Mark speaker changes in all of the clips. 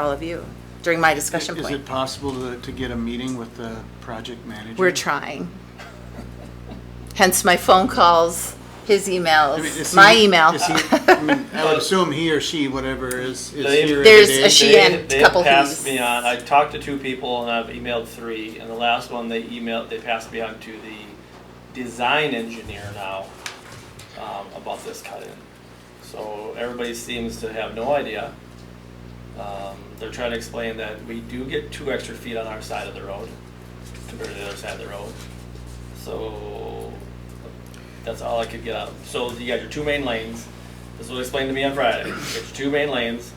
Speaker 1: all of you during my discussion
Speaker 2: Is it
Speaker 1: point.
Speaker 2: possible to, to get a meeting with the project manager?
Speaker 1: We're trying. Hence my phone calls, his
Speaker 2: I mean, is
Speaker 1: emails,
Speaker 2: he-
Speaker 1: my email.
Speaker 2: is he- I mean, I would assume he or she, whatever, is, is
Speaker 3: They-
Speaker 2: here
Speaker 1: There's
Speaker 2: every
Speaker 1: a
Speaker 2: day.
Speaker 1: she
Speaker 3: They-
Speaker 1: and
Speaker 3: they
Speaker 1: couple
Speaker 3: passed
Speaker 1: he's.
Speaker 3: me on. I talked to two people and I've emailed three, and the last one they emailed, they passed me on to the design engineer now um, about this cut-in. So everybody seems to have no idea. Um, they're trying to explain that we do get two extra feet on our side of the road compared to the other side of the road. So that's all I could get out. of So you got your two main lanes. This was explained to me on Friday. You got your two main lanes.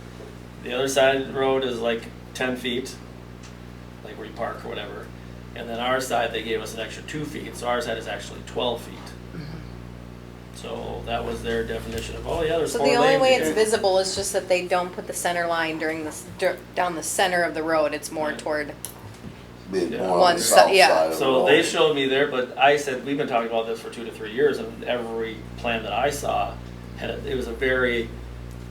Speaker 3: The other side of the road is like ten feet, like where you park or whatever. And then our side, they gave us an extra two feet, so our side is actually twelve feet. So that was their definition of, oh yeah, there's
Speaker 4: So
Speaker 3: four
Speaker 4: the
Speaker 3: lanes.
Speaker 4: only way
Speaker 3: you
Speaker 4: it's
Speaker 3: can-
Speaker 4: visible is just that they don't put the center line during this, dur- down the center of the road, it's more
Speaker 3: Yeah.
Speaker 4: toward,
Speaker 5: Bit
Speaker 3: Yeah.
Speaker 5: more on
Speaker 4: One
Speaker 5: the
Speaker 4: si-
Speaker 5: south
Speaker 4: yeah.
Speaker 5: side of the
Speaker 3: So they
Speaker 5: road.
Speaker 3: showed me there, but I said, we've been talking about this for two to three years, and every plan that I saw had, a- it was a very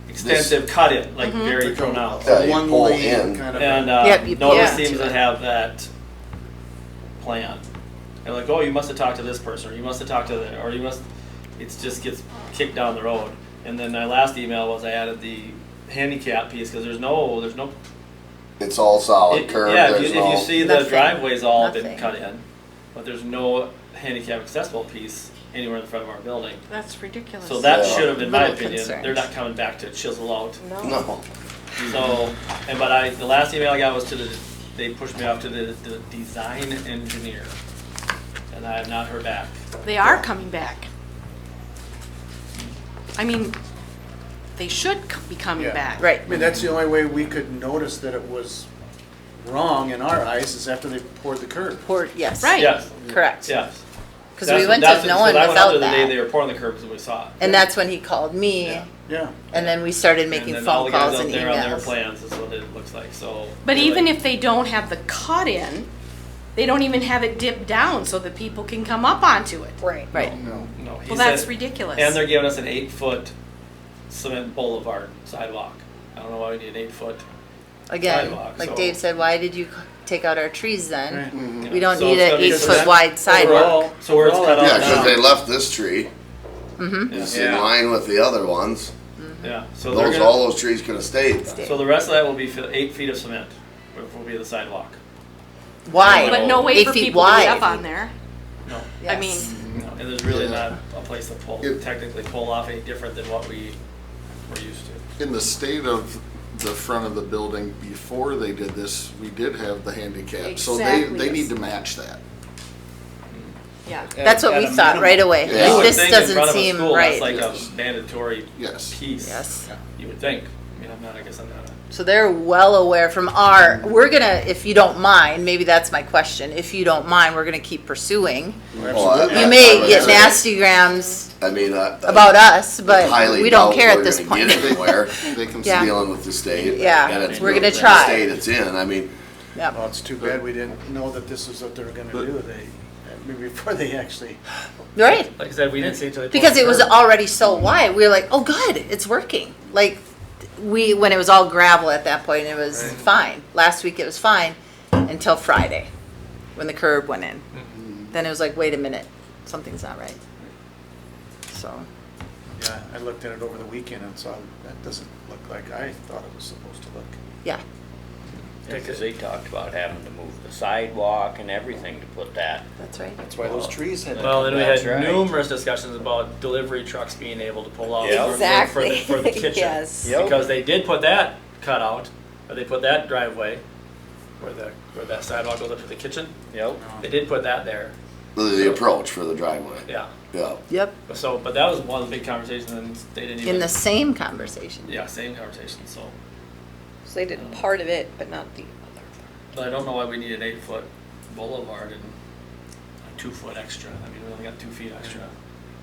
Speaker 3: extensive cut-in, like very thrown out.
Speaker 5: Yeah, you
Speaker 2: One
Speaker 5: pull
Speaker 2: lane
Speaker 5: in.
Speaker 2: kind of.
Speaker 3: And,
Speaker 1: Yep, you-
Speaker 3: uh, no one
Speaker 1: Mm-hmm. yeah.
Speaker 3: seems to have that plan. They're like, oh, you must have talked to this person, or you must have talked to the, or you must, it just gets kicked down the road. And then my last email was I added the handicap piece, because there's no, there's no
Speaker 5: It's all solid
Speaker 3: it-
Speaker 5: curb,
Speaker 3: Yeah, if
Speaker 5: there's
Speaker 3: you, if
Speaker 5: no.
Speaker 3: you see the
Speaker 1: Nothing.
Speaker 3: driveway's all been
Speaker 1: Nothing.
Speaker 3: cut in, but there's no handicap accessible piece anywhere in front of our building.
Speaker 6: That's ridiculous.
Speaker 3: So that
Speaker 5: Yeah.
Speaker 3: should have, in my
Speaker 1: Little
Speaker 3: opinion,
Speaker 1: concerned.
Speaker 3: they're not coming back to chisel out.
Speaker 4: no.
Speaker 5: No,
Speaker 3: So, and but I, the last email I got was to the, they pushed me off to the, the design engineer. And I have not heard back.
Speaker 6: They are coming back. I mean, they should c- be coming
Speaker 2: Yeah.
Speaker 6: back.
Speaker 1: Right.
Speaker 2: I mean, that's the only way we could notice that it was wrong in our eyes is after they poured the curb.
Speaker 1: Or, yes.
Speaker 6: Right.
Speaker 3: Yes,
Speaker 1: Correct.
Speaker 3: yes.
Speaker 1: Because
Speaker 3: That's-
Speaker 1: we went
Speaker 3: that's-
Speaker 1: to
Speaker 3: so
Speaker 1: no one
Speaker 3: I went out
Speaker 1: without
Speaker 3: there The day
Speaker 1: that.
Speaker 3: they were pouring the curbs and we saw it.
Speaker 1: And that's when he called me
Speaker 3: Yeah.
Speaker 2: Yeah.
Speaker 1: and then we started
Speaker 3: And
Speaker 1: making
Speaker 3: then all
Speaker 1: phone
Speaker 3: the guys
Speaker 1: calls
Speaker 3: out
Speaker 1: and
Speaker 3: there on their
Speaker 1: emails.
Speaker 3: plans is what it looks like, so.
Speaker 6: But
Speaker 3: they're
Speaker 6: even
Speaker 3: like-
Speaker 6: if they don't have the cut in, they don't even have it dipped down so that people can come up onto it.
Speaker 4: Right.
Speaker 1: Right.
Speaker 2: No.
Speaker 3: No, he
Speaker 6: Well, that's
Speaker 3: said-
Speaker 6: ridiculous.
Speaker 3: And they're giving us an eight-foot cement boulevard sidewalk. I don't know why we need an eight-foot.
Speaker 5: Mm-hmm.
Speaker 1: Again,
Speaker 3: Sidewalk,
Speaker 1: like
Speaker 3: so-
Speaker 1: Dave said, why did you c- take out our trees
Speaker 2: Right.
Speaker 1: then?
Speaker 3: you
Speaker 1: We
Speaker 3: know,
Speaker 1: don't
Speaker 3: so
Speaker 1: need
Speaker 3: it's
Speaker 1: an
Speaker 3: gonna be-
Speaker 1: eight
Speaker 3: so
Speaker 1: foot
Speaker 3: that-
Speaker 1: wide Mm-hmm. sidewalk.
Speaker 3: overall- So where it's cut
Speaker 2: overall,
Speaker 5: yeah,
Speaker 3: off
Speaker 5: because they
Speaker 3: now.
Speaker 5: left this tree, it's in
Speaker 3: Oh, Yeah.
Speaker 5: line with the other ones.
Speaker 3: Yeah, so they're
Speaker 5: Those, all
Speaker 3: gonna,
Speaker 5: those trees could have stayed.
Speaker 3: so the rest of that will be fi- eight feet of cement, will will be the sidewalk.
Speaker 1: Wide.
Speaker 6: But no way
Speaker 1: Eight
Speaker 6: for
Speaker 1: feet
Speaker 6: people to
Speaker 1: wide.
Speaker 6: get up on there.
Speaker 3: No,
Speaker 6: I mean,
Speaker 5: Mm-hmm.
Speaker 3: no, and there's really not
Speaker 7: Yeah.
Speaker 3: a place to pull,
Speaker 7: If-
Speaker 3: technically pull off any different than what we were used to.
Speaker 7: In the state of the front of the building, before they did this, we did have the handicap, so they,
Speaker 6: Exactly,
Speaker 7: they
Speaker 6: yes.
Speaker 7: need to match that.
Speaker 6: yeah.
Speaker 1: That's what
Speaker 3: At
Speaker 1: we
Speaker 3: a
Speaker 1: thought
Speaker 3: minimum.
Speaker 1: right away.
Speaker 5: Yeah. You
Speaker 3: would
Speaker 1: This
Speaker 3: think in
Speaker 1: doesn't
Speaker 3: front of a
Speaker 1: seem
Speaker 3: school,
Speaker 1: right.
Speaker 3: That's
Speaker 7: Yes.
Speaker 3: like a mandatory
Speaker 7: Yes.
Speaker 3: piece.
Speaker 1: Yes.
Speaker 3: You would think. I mean, I'm not, I guess I'm not a
Speaker 1: So they're well aware from our, we're gonna, if you don't mind, maybe that's my question, if you don't mind, we're gonna keep pursuing.
Speaker 5: Well, I-
Speaker 2: Absolutely.
Speaker 1: You
Speaker 5: I- I
Speaker 1: may
Speaker 5: would
Speaker 1: get
Speaker 5: say-
Speaker 1: nasty grams
Speaker 5: I mean, I, I
Speaker 1: about us, but
Speaker 5: highly
Speaker 1: we don't
Speaker 5: doubt
Speaker 1: care at
Speaker 5: we're
Speaker 1: this
Speaker 5: gonna
Speaker 1: point.
Speaker 5: Get anywhere.
Speaker 7: They can
Speaker 1: Yeah.
Speaker 5: Dealing with the state.
Speaker 1: Yeah,
Speaker 5: and it's
Speaker 1: we're gonna
Speaker 5: really the
Speaker 1: try.
Speaker 5: State it's in. I mean,
Speaker 2: Well,
Speaker 1: Yep,
Speaker 2: it's too bad we didn't know that this is what they were gonna do. They, I mean, before they actually.
Speaker 1: right,
Speaker 3: Like I said, we didn't see it till they pulled
Speaker 1: because
Speaker 3: the
Speaker 1: it was
Speaker 3: curb.
Speaker 1: already so wide, we were like, oh, good, it's working. Like, we, when it was all gravel at that point, it was
Speaker 2: Right.
Speaker 1: fine. Last week it was fine until Friday, when the curb went in.
Speaker 3: Mm.
Speaker 1: Then it was like, wait a minute, something's not right. So,
Speaker 2: Yeah, I looked at it over the weekend and saw that doesn't look like I thought it was supposed to look.
Speaker 1: yeah,
Speaker 8: Because they talked about having to move the sidewalk and everything to put that.
Speaker 1: that's right.
Speaker 2: That's why those trees had.
Speaker 3: Well, then we
Speaker 8: That's
Speaker 3: had
Speaker 8: right.
Speaker 3: numerous discussions about delivery trucks being able to pull out
Speaker 8: Yeah.
Speaker 3: for- for, the,
Speaker 4: Exactly,
Speaker 3: for the kitchen.
Speaker 4: yes.
Speaker 8: Yep.
Speaker 3: Because they did put that cutout, or they put that driveway where the where that sidewalk goes up to the kitchen.
Speaker 8: Yep.
Speaker 3: They did put that there.
Speaker 5: the, the approach for the driveway.
Speaker 3: Yeah.
Speaker 5: Yeah.
Speaker 1: Yep.
Speaker 3: So, but that was one big conversation, and they didn't even.
Speaker 1: In the same conversation.
Speaker 3: yeah, same conversation. So,
Speaker 4: So they did part of it, but not the other.
Speaker 3: but I don't know why we need an eight foot boulevard and a two foot extra. I mean, we only got two feet extra.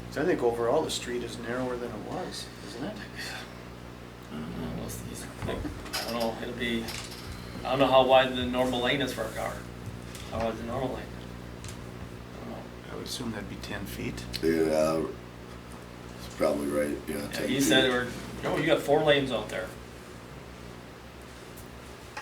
Speaker 2: So I think overall, the street is narrower than it was, isn't it?
Speaker 3: I don't know, it'll be, I don't know how wide the normal lane is for a car. How wide's the normal lane? I don't know.
Speaker 2: I would assume that'd be ten feet.
Speaker 5: Yeah, uh, it's probably right. Yeah.
Speaker 3: Yeah,
Speaker 5: take
Speaker 3: he
Speaker 5: two.
Speaker 3: said, or, no, you got four lanes out there.